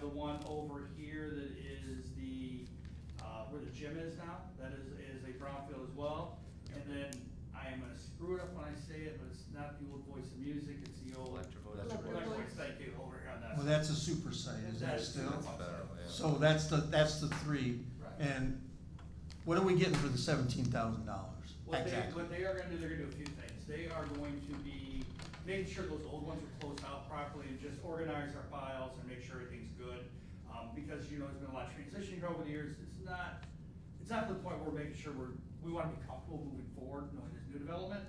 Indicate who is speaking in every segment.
Speaker 1: the one over here that is the, uh, where the gym is now, that is, is a brownfield as well. And then I am gonna screw it up when I say it, but it's not the old voice of music, it's the old.
Speaker 2: Electrovote.
Speaker 1: Electric voice, thank you, over here on that.
Speaker 3: Well, that's a super site, is that
Speaker 1: That's-
Speaker 3: still?
Speaker 1: that's-
Speaker 2: yeah.
Speaker 3: So that's the, that's the three.
Speaker 1: Right.
Speaker 3: And what are we getting for the seventeen thousand dollars?
Speaker 1: What they,
Speaker 3: Exactly.
Speaker 1: what they are gonna do, they're gonna do a few things. They are going to be making sure those old ones are closed out properly and just organize our files and make sure everything's good. Um, because, you know, there's been a lot of transition here over the years. It's not, it's not to the point where we're making sure we're, we wanna be comfortable moving forward, knowing there's new development.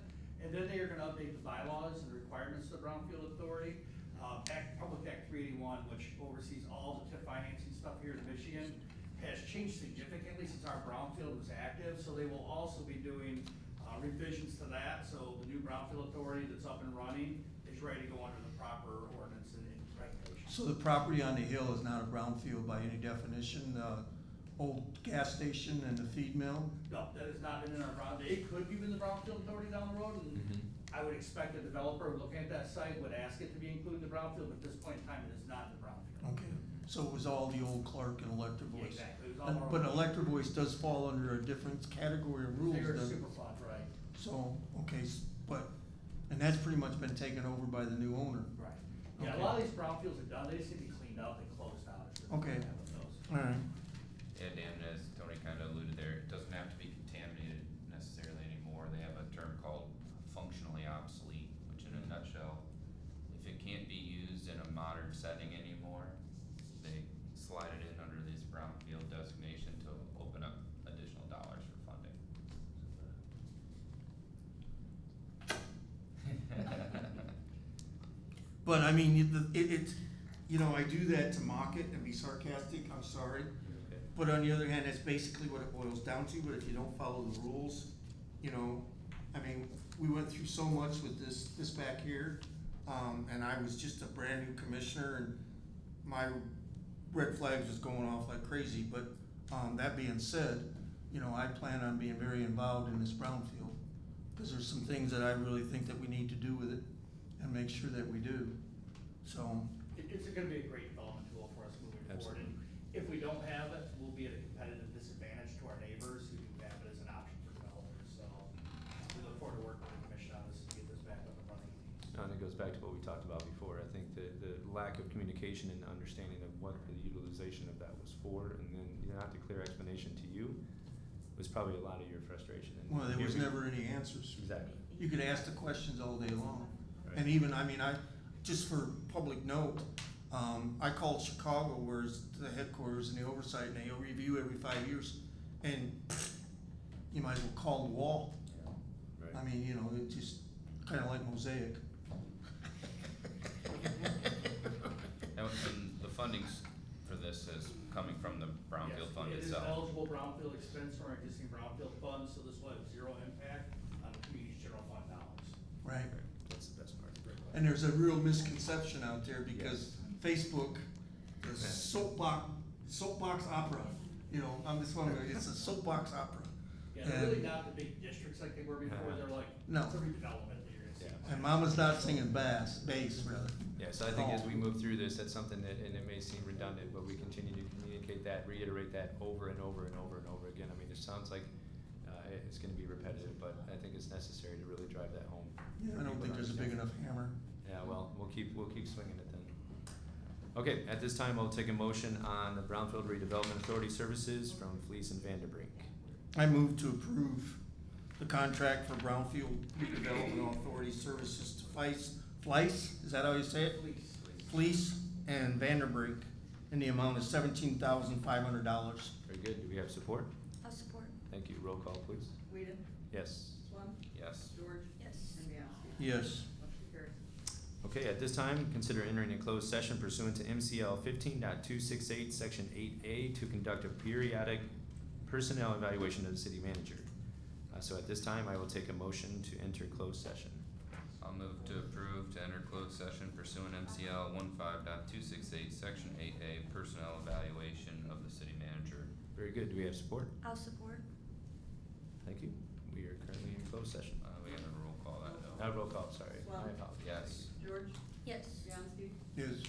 Speaker 1: And then they are gonna update the bylaws and requirements of the Brownfield Authority. Um, Act, Public Act three eighty-one, which oversees all the TIF financing stuff here in Michigan has changed significantly since our brownfield was active, so they will also be doing uh, revisions to that. So the new brownfield authority that's up and running is ready to go under the proper ordinance and and regulations.
Speaker 3: So the property on the hill is not a brownfield by any definition, the old gas station and the feed mill?
Speaker 1: No, that has not been in our brown, it could be in the brownfield authority down the road, and I would expect a developer looking at that site would ask it to be included in the brownfield, but at this point in time, it is not in the brownfield.
Speaker 3: Okay, so it was all the old Clark and Electric Voice?
Speaker 1: Exactly, it was all
Speaker 3: And-
Speaker 1: our-
Speaker 3: But Electric Voice does fall under a different category of rules,
Speaker 1: They're
Speaker 3: doesn't it?
Speaker 1: super fun, right?
Speaker 3: So, okay, s- but, and that's pretty much been taken over by the new owner?
Speaker 1: Right. Yeah, a
Speaker 3: Okay.
Speaker 1: lot of these brownfields are done, they just need to be cleaned up and closed out. It's just-
Speaker 3: Okay.
Speaker 1: Those.
Speaker 3: All right,
Speaker 2: Yeah, Dan, as Tony kind of alluded there, it doesn't have to be contaminated necessarily anymore. They have a term called functionally obsolete, which in a nutshell, if it can't be used in a modern setting anymore, they slide it in under this brownfield designation to open up additional dollars for funding.
Speaker 3: but I mean, it- the- it, it, you know, I do that to mock it and be sarcastic, I'm sorry.
Speaker 2: Okay.
Speaker 3: But on the other hand, that's basically what it boils down to, but if you don't follow the rules, you know, I mean, we went through so much with this, this back here. Um, and I was just a brand new commissioner and my red flags was going off like crazy, but, um, that being said, you know, I plan on being very involved in this brownfield. Cause there's some things that I really think that we need to do with it and make sure that we do, so.
Speaker 1: It- It's gonna be a great development tool for us moving forward,
Speaker 2: Absolutely.
Speaker 1: and if we don't have it, we'll be at a competitive disadvantage to our neighbors who do have it as an option for developers, so we look forward to working with the commission on this to get this back up and running.
Speaker 4: No, Uh, And it goes back to what we talked about before. I think the, the lack of communication and understanding of what the utilization of that was for, and then you know, not the clear explanation to you, was probably a lot of your frustration. And
Speaker 3: Well, there
Speaker 4: here
Speaker 3: was
Speaker 4: we-
Speaker 3: never any answers.
Speaker 4: Exactly.
Speaker 3: You could ask the questions all day long.
Speaker 4: Right.
Speaker 3: And even, I mean, I, just for public note, um, I called Chicago, where's the headquarters and the oversight, and they review every five years. And you might as well call the wall.
Speaker 4: Right.
Speaker 3: I mean, you know, it just kinda like mosaic.
Speaker 2: And, and the fundings for this is coming from the brownfield
Speaker 1: Yes,
Speaker 2: fund
Speaker 1: It is
Speaker 2: itself.
Speaker 1: eligible brownfield expense from our existing brownfield funds, so this will have zero impact on the community's general fund dollars.
Speaker 3: Right.
Speaker 4: Right. That's the best part.
Speaker 3: And there's a real misconception out there because Facebook, the soapbox, soapbox opera, you know, I'm just wondering, it's a soapbox opera.
Speaker 1: Yeah, they're really
Speaker 3: And-
Speaker 1: not the big districts like they were before, they're like,
Speaker 3: No.
Speaker 1: it's a redevelopment that you're gonna see.
Speaker 3: And mama's not singing bass, bass rather.
Speaker 4: Yeah, so I think as we move through this, that's something that, and it may seem redundant, but we continue to communicate that, reiterate that over and over and over and over again. I mean, it sounds like uh, it- it's going to be repetitive, but I think it's necessary to really drive that home.
Speaker 3: Yeah, I don't think there's a big enough hammer.
Speaker 4: Yeah, well, we'll keep, we'll keep swinging it then. Okay, at this time, I'll take a motion on the Brownfield Redevelopment Authority Services from Fleece and Vanderbrink.
Speaker 3: I move to approve the contract for Brownfield Redevelopment Authority Services to Fleiss, Fleiss, is that how you say it?
Speaker 1: Please, please.
Speaker 3: Fleece and Vanderbrink in the amount of seventeen thousand five hundred dollars.
Speaker 4: Very good, do we have support?
Speaker 5: I'll support.
Speaker 4: Thank you, roll call, please.
Speaker 6: Whedon,
Speaker 4: Yes.
Speaker 6: Swam,
Speaker 2: Yes.
Speaker 6: George,
Speaker 5: Yes.
Speaker 6: and Bianski.
Speaker 3: Yes.
Speaker 6: Motion carries.
Speaker 4: Okay, at this time, consider entering a closed session pursuant to MCL 15.268, section eight A, to conduct a periodic personnel evaluation of the city manager. Uh, so at this time, I will take a motion to enter closed session.
Speaker 2: I'll move to approve to enter closed session pursuant MCL one section eight A, personnel evaluation of the city manager.
Speaker 4: Very good, do we have support?
Speaker 5: I'll support.
Speaker 4: Thank you, we are currently in closed session.
Speaker 2: Uh, we gotta roll call that though.
Speaker 4: Uh, roll call, sorry, my apologies.
Speaker 2: Yes.
Speaker 6: George,
Speaker 5: Yes.
Speaker 6: Bianski,
Speaker 3: Yes.